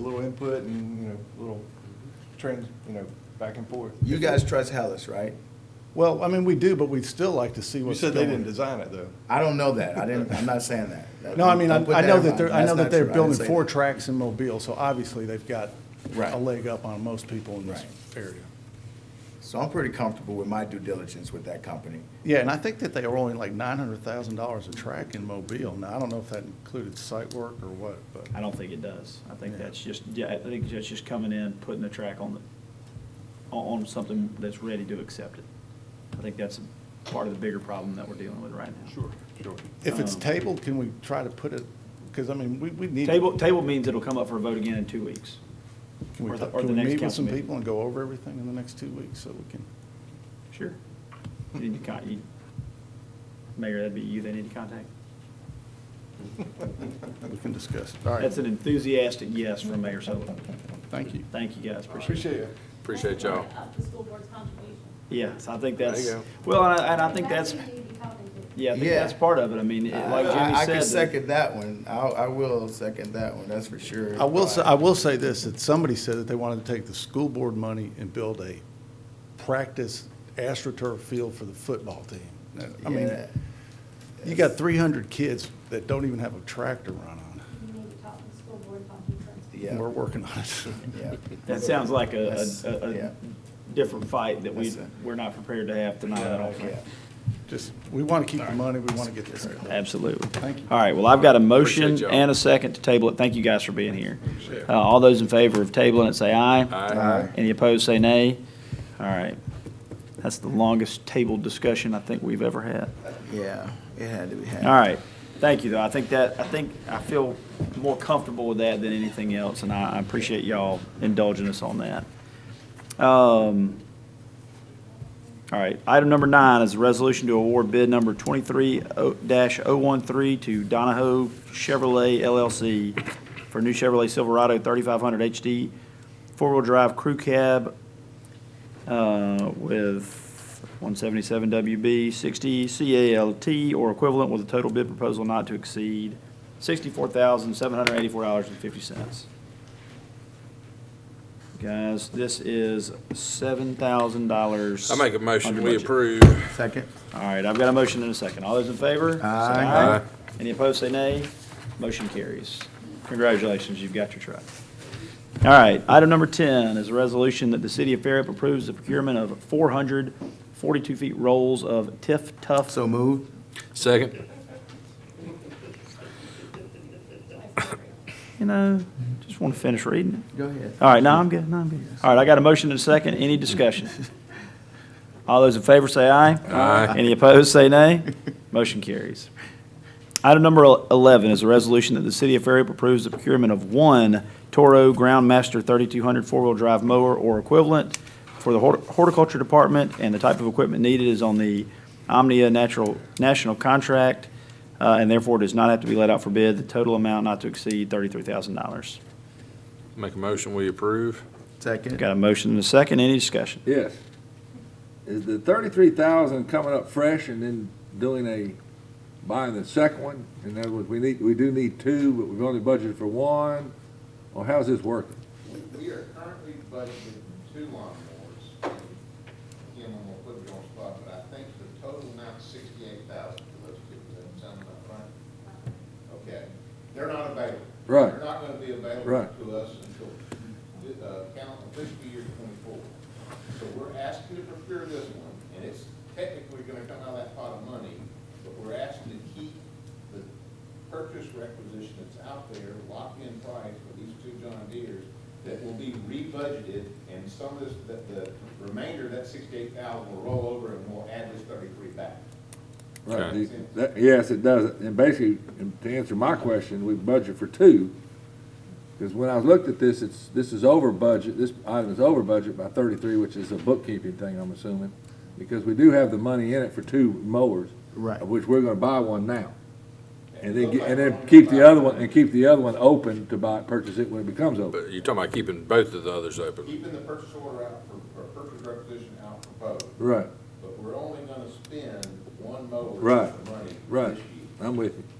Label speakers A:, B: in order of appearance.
A: little input and, you know, little trends, you know, back and forth.
B: You guys trust Hellas, right?
C: Well, I mean, we do, but we'd still like to see
A: You
C: what's
A: said
C: going.
A: they didn't design it, though.
B: I don't know that. I didn't, I'm not saying that. That-
C: No, I mean, I
B: don't put
C: I know
B: in
C: that they're,
B: my-
C: I know
B: that's
C: that
B: not
C: they're
B: true. I didn't
C: building
B: say
C: four
B: that.
C: tracks in Mobile, so obviously they've got
B: Right.
C: a leg up on most people in this
B: Right.
C: area.
B: So I'm pretty comfortable with my due diligence with that company.
C: Yeah, and I think that they were only like nine hundred thousand dollars a track in Mobile. Now, I don't know if that included site work or what, but,
D: I don't think it does. I think
C: Yeah.
D: that's just, yeah, I think that's just coming in, putting the track on the, on, on something that's ready to accept it. I think that's part of the bigger problem that we're dealing with right now.
A: sure.
C: if it's
D: Um,
C: tabled, can we try to put it, because I mean, we, we need.
D: Table, table means it'll come up for a vote again in two weeks.
C: Can we,
D: or the-
C: ta-
D: or
C: can
D: the
C: we
D: next
C: meet with
D: council
C: some
D: meeting.
C: people and go over everything in the next two weeks so we can?
D: Sure. You need to con, you, Mayor, that'd be you they need to contact.
C: We can discuss. All right,
D: That's an enthusiastic yes from Mayor Sullivan.
C: thank you.
D: Thank you, guys, appreciate it.
A: Appreciate it.
E: Appreciate y'all.
F: Up the school board's contribution.
D: Yes, I think
E: There you
D: that's,
E: go.
D: well, and I, and I think that's,
F: That's who you'd be talking to.
D: yeah, I think
B: Yeah.
D: that's part of it. I mean, it- like
B: I-
D: Jimmy
B: I-
D: said.
B: I can
D: that-
B: second that one. I, I will second that one, that's for sure.
C: I will say, I will say this, that somebody said that they wanted to take the school board money and build a practice astroturf field for the football team. I mean,
B: Yeah.
C: you got three hundred kids that don't even have a track to run on.
F: You need to talk to the school board about the difference.
B: Yeah.
C: We're working on it.
B: Yeah.
D: That sounds like a,
B: That's-
D: a- a,
B: yeah.
D: a different fight that we,
B: That's it.
D: we're not prepared to have tonight, I don't think.
B: Yeah.
C: Just, we want to keep the money, we want to get this.
D: Absolutely.
C: Thank you.
D: All right, well, I've got a
E: Appreciate
D: motion
E: y'all.
D: and a second to table it. Thank you guys for being here. Uh, all those in favor of tabling it, say aye.
E: Aye.
D: Any opposed, say nay. All right. That's the longest tabled discussion I think we've ever had.
B: Yeah, it had to be had.
D: All right. Thank you, though. I think that, I think, I feel more comfortable with that than anything else, and I I appreciate y'all indulging us on that. Um, All right. Item number nine is a resolution to award bid number 23-013 to Donahoe Chevrolet LLC for new Chevrolet Silverado 3500 HD four-wheel drive crew cab uh, with 177 WB 60 CALT or equivalent with a total bid proposal not to exceed $64,784.50. Guys, this is $7,000.
E: I make a motion,
D: under
E: we
D: budget.
E: approve.
B: Second?
D: All right, I've got a motion and a second. All those in favor? say
B: Aye.
E: Aye.
D: Any opposed, say nay. Motion carries. Congratulations, you've got your truck. All right, item number 10 is a resolution that the city of Fairhope approves the procurement of 442 feet rolls of Tiff Tough.
B: So moved?
E: Second.
D: You know, just want to finish reading it.
B: Go ahead.
D: All right, no, I'm good, no, I'm good. All right, I got a motion and a second. Any discussion? All those in favor say aye.
E: Aye.
D: Any opposed, say nay. Motion carries. Item number 11 is a resolution that the city of Fairhope approves the procurement of one Toro Groundmaster 3200 four-wheel drive mower or equivalent for the hort- horticulture department, and the type of equipment needed is on the Omnia Natural, National Contract, uh, and therefore does not have to be let out for bid. The total amount not to exceed $33,000.
E: Make a motion, we approve.
B: Second?
D: Got a motion and a second. Any discussion?
G: Yes. Is the thirty-three thousand coming up fresh and then doing a, buying the second one? In other words, we need, we do need two, but we've only budgeted for one, or how's this working?
H: We are currently budgeting two lawnmowers. and Again, I'm gonna put it on the spot, but I think the total amount sixty-eight thousand for those two, does that sound about right? Okay, they're not available.
G: Right.
H: They're not gonna be available
G: Right.
H: to us until, uh, count fiscal year twenty-four. So we're asking to procure this one, and it's technically gonna come out of that pot of money, but we're asking to keep the purchase requisition that's out there, locked-in price for these two John Deeres, that will be rebudgeted, and some of this, that the remainder, of that sixty-eight thousand will roll over and we'll add this thirty-three back.
G: Right.
E: Okay.
G: the- that- Yes, it does. And basically, and to answer my question, we budget for two. Because when I looked at this, it's, this is over budget, this item is over budget by thirty-three, which is a bookkeeping thing, I'm assuming. Because we do have the money in it for two mowers.
B: Right.
G: Of which we're gonna buy one now. And then,
H: Looks
G: get-
H: like
G: and
H: we're
G: then
H: only
G: keep
H: buying
G: the other one,
H: one.
G: and keep the other one open to buy, purchase it when it becomes open.
E: But you're talking about keeping both of the others open.
H: Keeping the purchase order out for, or purchase requisition out for both,
G: Right,
H: but we're only gonna spend one mower
G: Right.
H: worth of money this year.
G: right. I'm with you.